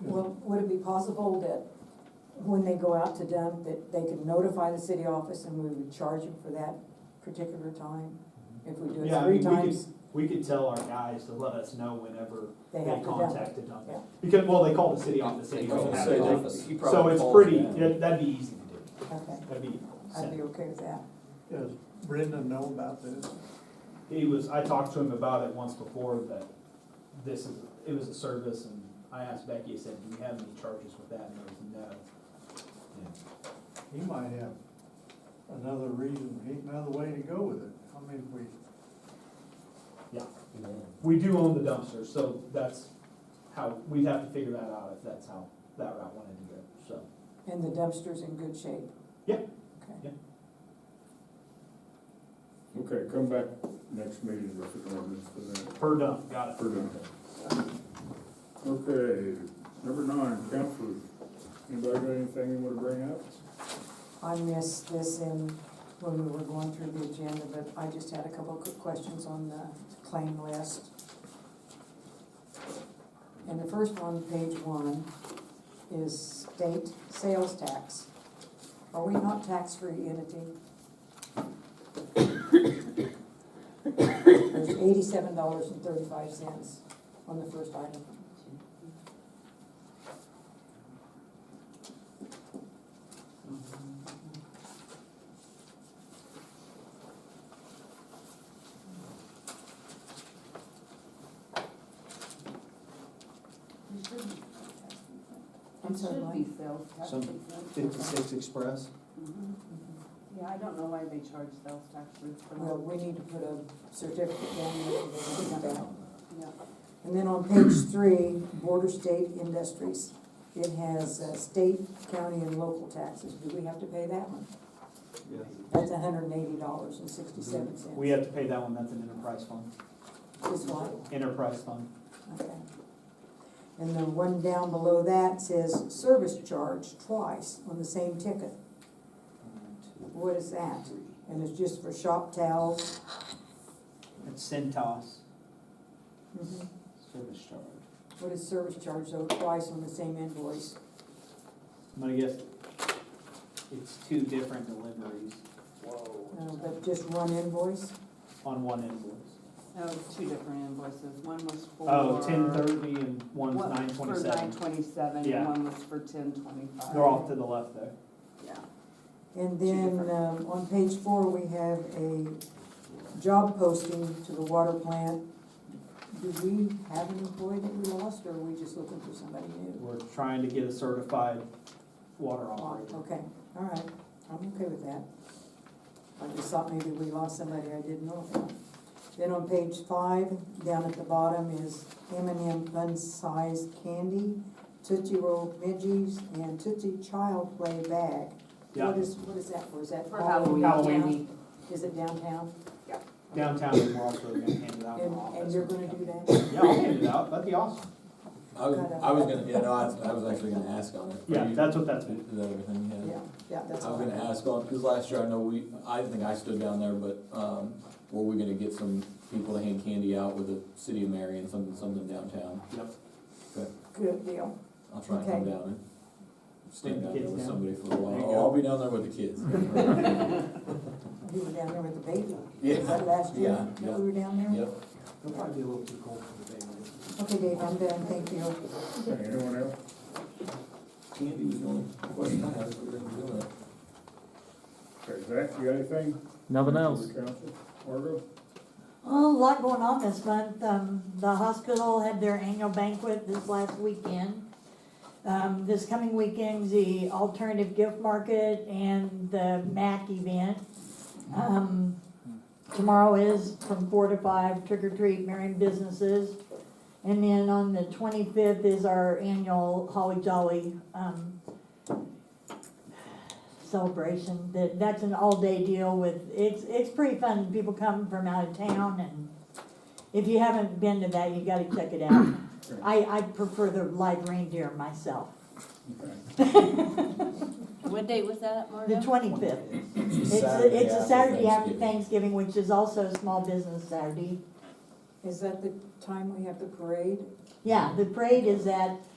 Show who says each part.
Speaker 1: Well, would it be possible that when they go out to dump, that they could notify the city office and we would charge them for that particular time? If we do
Speaker 2: Yeah,
Speaker 1: it three
Speaker 2: I mean, we could-
Speaker 1: times,
Speaker 2: We could tell our guys to let us know whenever
Speaker 1: they
Speaker 2: they
Speaker 1: have to dump.
Speaker 2: contacted them.
Speaker 1: Yeah.
Speaker 2: Because, well, they call the city office,
Speaker 3: They
Speaker 2: city
Speaker 3: call
Speaker 2: doesn't
Speaker 3: the
Speaker 2: have
Speaker 3: city
Speaker 2: an
Speaker 3: office.
Speaker 2: office.
Speaker 3: He
Speaker 2: So
Speaker 3: probably
Speaker 2: it's
Speaker 3: calls
Speaker 2: pretty,
Speaker 3: them.
Speaker 2: that- that'd be easy to do,
Speaker 1: Okay,
Speaker 2: that'd be
Speaker 1: I'd be
Speaker 2: simple.
Speaker 1: okay with that.
Speaker 4: Does Brendan know about this?
Speaker 2: He was, I talked to him about it once before, that this is, it was a service, and I asked Becky, I said, do you have any charges with that, and there was
Speaker 4: He might have another reason, another way to go with it. I mean, if we,
Speaker 2: no. We do own the dumpster, so that's how, we'd have to figure that out if that's how that route wanted to go, so.
Speaker 1: And the dumpster's in good shape?
Speaker 2: Yeah.
Speaker 1: Okay.
Speaker 5: Okay, come back next meeting with the ordinance for that,
Speaker 2: Per dump, got it.
Speaker 5: for done. Okay, number nine, councilors, anybody got anything you wanna bring up?
Speaker 1: I missed this in, when we were going through the agenda, but I just had a couple of quick questions on the claim list. And the first one, page one, is state sales tax. Are we not tax-free entity? There's eighty-seven dollars and thirty-five cents on the first item.
Speaker 6: It should be-
Speaker 1: I'm
Speaker 6: It
Speaker 1: sorry,
Speaker 6: should
Speaker 1: what?
Speaker 6: be sales tax.
Speaker 3: Some
Speaker 6: exempt.
Speaker 3: Fifty-six Express?
Speaker 6: Mhm. Yeah, I don't know why they charge sales tax rates for
Speaker 1: Well,
Speaker 6: that.
Speaker 1: we need to put a certificate down there for them to get that.
Speaker 6: Yeah.
Speaker 1: And then on page three, border state industries, it has uh, state, county, and local taxes. Do we have to pay that one? That's hundred and eighty dollars and sixty-seven cents.
Speaker 2: We have to pay that one, that's an enterprise fund,
Speaker 1: This one,
Speaker 2: enterprise fund.
Speaker 1: okay. And the one down below that says service charge twice on the same ticket. What is that? And it's just for shop towels?
Speaker 2: It's Centos
Speaker 1: Mhm.
Speaker 2: service charge.
Speaker 1: What is service charge though, twice on the same invoice?
Speaker 2: I'm gonna guess it's two different deliveries
Speaker 1: Uh, But just one invoice?
Speaker 2: on one invoice.
Speaker 6: No, it's two different invoices. One was for.
Speaker 2: Oh, ten thirty and one's
Speaker 6: one-
Speaker 2: nine
Speaker 6: For nine
Speaker 2: twenty-seven.
Speaker 6: twenty-seven,
Speaker 2: Yeah.
Speaker 6: and one was for ten twenty-five.
Speaker 2: They're off to the left there.
Speaker 6: Yeah.
Speaker 1: And
Speaker 6: Two
Speaker 1: then,
Speaker 6: different-
Speaker 1: um, on page four, we have a job posting to the water plant. Do we have an employee that we lost, or are we just looking for somebody new?
Speaker 2: We're trying to get a certified water
Speaker 1: Oh,
Speaker 2: operator.
Speaker 1: Okay, all right, I'm okay with that. I just thought maybe we lost somebody I didn't know about. Then on page five, down at the bottom is M and M fun-sized candy, Tootsie Roll midgies, and Tootsie Child Play Bag.
Speaker 2: Yeah,
Speaker 1: What is, what is that for? Is that
Speaker 6: For Halloween.
Speaker 2: Halloween.
Speaker 1: Is it downtown?
Speaker 2: downtown and we're also gonna hand it out in
Speaker 1: And,
Speaker 2: the office.
Speaker 1: and you're gonna do that?
Speaker 2: Yeah, I'll hand it out, that'd be awesome.
Speaker 3: I was, I was gonna, yeah, no, I was, I was actually gonna ask on it.
Speaker 2: Yeah,
Speaker 3: Is
Speaker 2: that's what that's,
Speaker 3: is that everything,
Speaker 1: Yeah,
Speaker 3: yeah?
Speaker 1: yeah, that's
Speaker 3: I was
Speaker 1: all.
Speaker 3: gonna ask on, because last year I know we, I think I stood down there, but, um, were we gonna get some people to hand candy out with the city of Marion, something, something downtown?
Speaker 2: yep.
Speaker 1: Good deal.
Speaker 3: I'll try and come
Speaker 1: Okay.
Speaker 3: down and stand
Speaker 2: Bring
Speaker 3: down
Speaker 2: the
Speaker 3: there
Speaker 2: kids
Speaker 3: with
Speaker 2: down.
Speaker 3: somebody for a
Speaker 5: There you
Speaker 3: while. Oh,
Speaker 5: go.
Speaker 3: I'll be down there with the kids.
Speaker 1: You were down there with the baby.
Speaker 3: Yeah.
Speaker 1: Was that last year?
Speaker 3: Yeah,
Speaker 1: that
Speaker 3: yeah.
Speaker 1: We were down there?
Speaker 3: Yep.
Speaker 2: It'll probably be a little too cold for the baby.
Speaker 1: Okay, Dave, I'm done, thank you.
Speaker 5: Okay, Anyone else?
Speaker 3: Candy was the only question I had, if we were gonna do it.
Speaker 5: Okay, Zach, you got anything?
Speaker 7: Nothing else.
Speaker 5: Council, Margot?
Speaker 8: Well, a lot going on this month. Um, the hospital had their annual banquet this last weekend. Um, this coming weekend's the alternative gift market and the MAC event. Um, tomorrow is from four to five, trick or treat, Marion businesses. And then on the twenty-fifth is our annual Holly Jolly, um, celebration. That, that's an all-day deal with, it's, it's pretty fun. People come from out of town and if you haven't been to that, you gotta check it out. I, I prefer the live reindeer myself.
Speaker 5: Okay.
Speaker 6: What date was that,
Speaker 8: The twenty-fifth. It's, a-
Speaker 3: Saturday
Speaker 8: it's a
Speaker 3: after
Speaker 8: Saturday after
Speaker 3: Thanksgiving.
Speaker 8: Thanksgiving, which is also Small Business Saturday.
Speaker 1: Is that the time we have the parade?
Speaker 8: Yeah, the parade is at